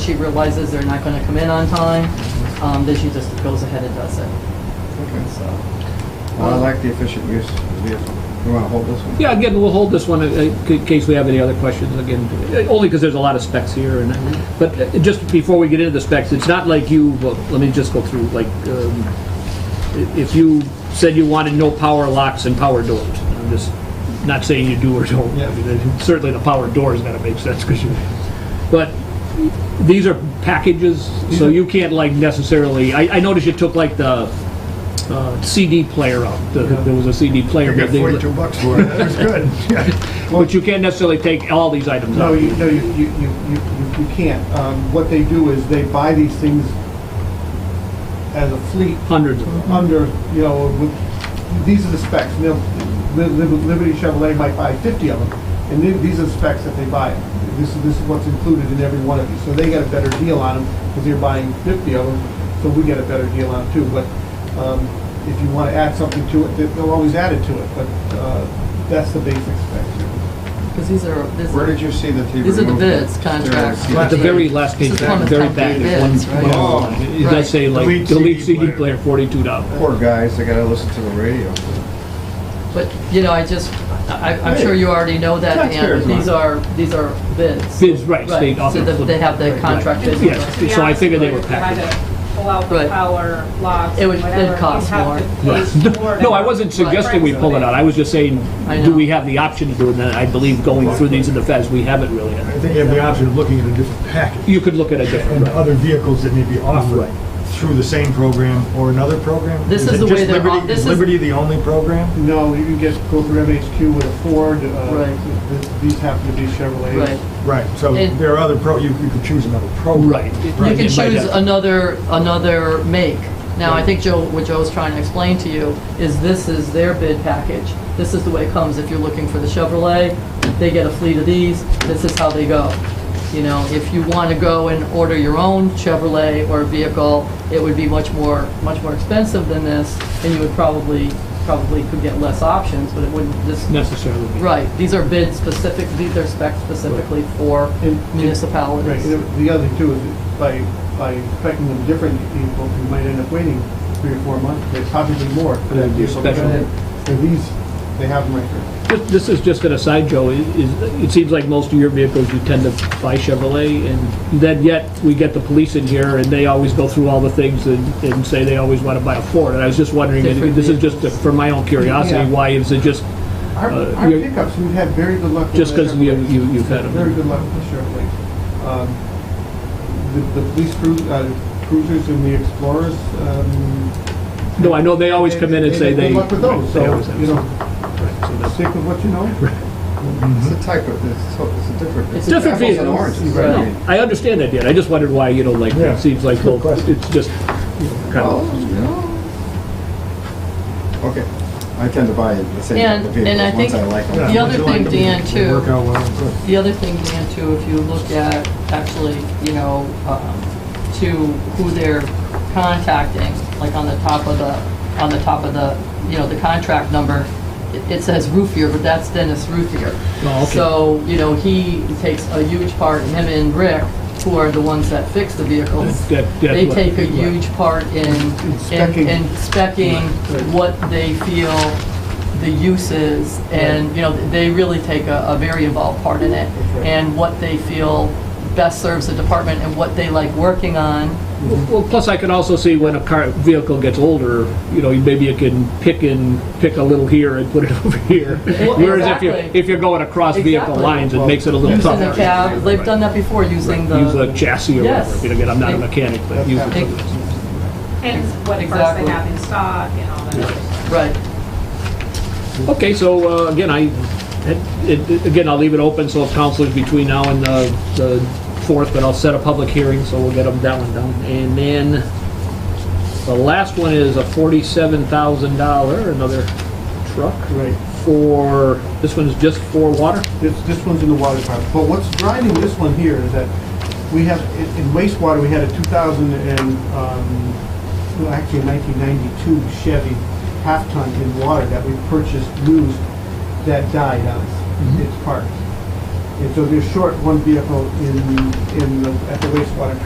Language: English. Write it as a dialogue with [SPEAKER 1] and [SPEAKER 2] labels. [SPEAKER 1] she realizes they're not going to come in on time, um, then she just goes ahead and does it.
[SPEAKER 2] Okay.
[SPEAKER 1] So,
[SPEAKER 2] Well, I like the efficient use of the vehicle. You want to hold this one?
[SPEAKER 3] Yeah, again, we'll hold this one uh, in case we have any other questions, again, uh, only because there's a lot of specs here, and, but uh, just before we get into the specs, it's not like you, well, let me just go through, like, um, i- if you said you wanted no power locks and power doors, I'm just not saying you do or don't. I mean, Certainly the power door's gotta make sense, because you, but these are packages, so you can't like necessarily, I, I noticed you took like the uh, CD player out, The- there was a CD player.
[SPEAKER 4] You
[SPEAKER 3] but
[SPEAKER 4] got
[SPEAKER 3] they-
[SPEAKER 4] 42 bucks for it, that was good. Yeah.
[SPEAKER 3] but you can't necessarily take all these items
[SPEAKER 4] No,
[SPEAKER 3] out.
[SPEAKER 4] you, no, you, you, you, you- you can't. Um, What they do is they buy these things as a fleet
[SPEAKER 3] Hundreds of them.
[SPEAKER 4] under, you know, with, these are the specs. Mil- Li- Li- Liberty Chevrolet might buy 50 of them, and then these are the specs that they buy. This is, this is what's included in every one of these. So they get a better deal on them because they're buying 50 of them, so we get a better deal on them too. But um, if you want to add something to it, they- they'll always add it to it, but uh, that's the basic specs.
[SPEAKER 1] because these are, this
[SPEAKER 2] Where
[SPEAKER 1] are,
[SPEAKER 2] did you see that he removed?
[SPEAKER 1] These are the bids,
[SPEAKER 2] There, I see
[SPEAKER 1] contracts.
[SPEAKER 2] that.
[SPEAKER 3] At the very last page,
[SPEAKER 1] This is
[SPEAKER 3] the very
[SPEAKER 1] Plymouth
[SPEAKER 3] back,
[SPEAKER 1] Company
[SPEAKER 3] there's one,
[SPEAKER 1] bids, right?
[SPEAKER 3] one other line. it
[SPEAKER 4] Right.
[SPEAKER 3] does say like
[SPEAKER 4] Delete
[SPEAKER 3] delete
[SPEAKER 4] CD
[SPEAKER 3] CD player, forty-two dollars.
[SPEAKER 2] Poor guys, they gotta listen to the radio.
[SPEAKER 1] but, you know, I just, I, I'm sure you already know that, and
[SPEAKER 2] Taxpayers'
[SPEAKER 1] these
[SPEAKER 2] money.
[SPEAKER 1] are, these are bids.
[SPEAKER 3] Bids, right, state
[SPEAKER 1] So
[SPEAKER 3] office.
[SPEAKER 1] that they have the contract bids.
[SPEAKER 3] Yes.
[SPEAKER 1] with us.
[SPEAKER 3] So I figured they were
[SPEAKER 5] packaged. Pull out
[SPEAKER 1] Right.
[SPEAKER 5] the power locks,
[SPEAKER 1] It would- it'd
[SPEAKER 5] whatever, you'd
[SPEAKER 1] cost
[SPEAKER 5] have
[SPEAKER 1] more.
[SPEAKER 5] to pay more to
[SPEAKER 3] No, I
[SPEAKER 5] have
[SPEAKER 3] wasn't
[SPEAKER 5] it.
[SPEAKER 3] suggesting we pull it out, I was just saying,
[SPEAKER 1] I
[SPEAKER 3] do
[SPEAKER 1] know.
[SPEAKER 3] we have the option to do it, and I believe going through these in the feds, we haven't really.
[SPEAKER 6] I think you have the option of looking at a different package
[SPEAKER 3] You could look at a
[SPEAKER 6] and
[SPEAKER 3] different, right.
[SPEAKER 6] other vehicles that may be offered through the same program or another program?
[SPEAKER 1] This is
[SPEAKER 6] it
[SPEAKER 1] the way
[SPEAKER 6] just
[SPEAKER 1] they're
[SPEAKER 6] Liberty-
[SPEAKER 1] off- this
[SPEAKER 6] Is
[SPEAKER 1] is-
[SPEAKER 6] Liberty the only program?
[SPEAKER 4] No, you can get, go through MHQ with a Ford, uh,
[SPEAKER 1] Right.
[SPEAKER 4] th- th- these happen to be Chevrolet.
[SPEAKER 1] Right.
[SPEAKER 6] Right, so
[SPEAKER 1] And-
[SPEAKER 6] there are other pro, you you could choose another program.
[SPEAKER 3] Right.
[SPEAKER 1] You
[SPEAKER 3] Right,
[SPEAKER 1] can
[SPEAKER 3] it might
[SPEAKER 1] choose
[SPEAKER 3] have-
[SPEAKER 1] another, another make. Now, I think Joe, what Joe's trying to explain to you is this is their bid package. This is the way it comes. If you're looking for the Chevrolet, they get a fleet of these, this is how they go. You know, if you want to go and order your own Chevrolet or vehicle, it would be much more, much more expensive than this, and you would probably, probably could get less options, but it wouldn't, this,
[SPEAKER 3] necessarily. be-
[SPEAKER 1] right, these are bid specific, these are specs specifically for
[SPEAKER 4] And- and- Right,
[SPEAKER 1] municipalities.
[SPEAKER 4] and the other thing too is that by, by expecting them different, you will- you might end up waiting three or four months, but possibly more. for that
[SPEAKER 3] That'd be
[SPEAKER 4] vehicle. But
[SPEAKER 3] special.
[SPEAKER 4] then, For these, they have them right here.
[SPEAKER 3] This- This is just an aside, Joe, is, is- it seems like most of your vehicles, you tend to buy Chevrolet, and then yet, we get the police in here, and they always go through all the things and, and say they always want to buy a Ford, and I was just wondering, and this is just for my own curiosity,
[SPEAKER 4] Yeah.
[SPEAKER 3] why is it just,
[SPEAKER 4] Our,
[SPEAKER 3] Uh,
[SPEAKER 4] our
[SPEAKER 3] you're-
[SPEAKER 4] pickups, we've had very good luck. with
[SPEAKER 3] Just
[SPEAKER 4] the
[SPEAKER 3] 'cause we have-
[SPEAKER 4] Chevrolets.
[SPEAKER 3] you- you've had 'em.
[SPEAKER 4] Very good luck with the Chevrolets. Um, the, the police cru- uh, cruisers and the Explorers, um.
[SPEAKER 3] no, I know they always come in and say they.
[SPEAKER 4] Good luck with those,
[SPEAKER 3] they always
[SPEAKER 4] so,
[SPEAKER 3] have
[SPEAKER 4] you
[SPEAKER 3] something.
[SPEAKER 4] know,
[SPEAKER 3] Right, so that's-
[SPEAKER 4] stick with what you know.
[SPEAKER 6] Mm-hmm.
[SPEAKER 2] It's a type of, it's, so- it's a different.
[SPEAKER 1] It's
[SPEAKER 3] Different
[SPEAKER 2] apples and
[SPEAKER 3] vehicles.
[SPEAKER 2] oranges.
[SPEAKER 1] Right.
[SPEAKER 2] I mean,
[SPEAKER 3] I understand that, Dan, I just wondered why, you know, like,
[SPEAKER 6] Yeah.
[SPEAKER 3] it seems like,
[SPEAKER 6] Good
[SPEAKER 3] well,
[SPEAKER 6] question.
[SPEAKER 3] it's just, you know, kind
[SPEAKER 2] well,
[SPEAKER 3] of,
[SPEAKER 2] you know. Oh, Okay, I tend to buy the same type
[SPEAKER 1] And-
[SPEAKER 2] of
[SPEAKER 1] and I
[SPEAKER 2] vehicles once
[SPEAKER 1] think
[SPEAKER 2] I like
[SPEAKER 6] Yeah,
[SPEAKER 2] them.
[SPEAKER 1] The other
[SPEAKER 6] if you like
[SPEAKER 1] thing,
[SPEAKER 6] them,
[SPEAKER 1] Dan,
[SPEAKER 6] they
[SPEAKER 1] too-
[SPEAKER 6] Work out well, good.
[SPEAKER 1] The other thing, Dan, too, if you look at actually, you know, um, to who they're contacting, like on the top of the, on the top of the, you know, the contract number, it- it says Roofier, but that's Dennis Roofier.
[SPEAKER 3] Oh, okay.
[SPEAKER 1] So, you know, he takes a huge part, him and Rick, who are the ones that fix the vehicles.
[SPEAKER 3] That- that-
[SPEAKER 1] They take a
[SPEAKER 3] right.
[SPEAKER 1] huge part in, in
[SPEAKER 4] specking.
[SPEAKER 1] in specking what they feel the use is, and, you know, they really take a, a very involved part in it,
[SPEAKER 4] right.
[SPEAKER 1] and what they feel best serves the department and what they like working on.
[SPEAKER 3] Well, plus I can also see when a car, vehicle gets older, you know, maybe you can pick and, pick a little here and put it over here.
[SPEAKER 1] Well,
[SPEAKER 3] Whereas if you're,
[SPEAKER 1] exactly.
[SPEAKER 3] if you're going across vehicle
[SPEAKER 1] Exactly.
[SPEAKER 3] lines, it makes it a little
[SPEAKER 1] Using
[SPEAKER 3] tougher.
[SPEAKER 1] the cab, they've done that before, using the.
[SPEAKER 3] Use a chassis or
[SPEAKER 1] Yes.
[SPEAKER 3] whatever, You know, again, I'm not a mechanic, but use
[SPEAKER 1] It-
[SPEAKER 3] it.
[SPEAKER 5] And it's what first
[SPEAKER 1] Exactly.
[SPEAKER 5] they have in stock and all that other stuff.
[SPEAKER 1] Right.
[SPEAKER 3] Okay, so uh, again, I, it- it- again, I'll leave it open, so if councilors between now and uh, the 4th, but I'll set a public hearing, so we'll get them- that one done. And then the last one is a $47,000, another truck.
[SPEAKER 4] Right.
[SPEAKER 3] for, this one's just for water?
[SPEAKER 4] This, this one's in the water department, but what's driving this one here is that we have, in in wastewater, we had a 2000 and, um, well, actually 1992 Chevy half-ton in water that we purchased used that died on us. It's parked. And so they're short one vehicle in, in, the- at the wastewater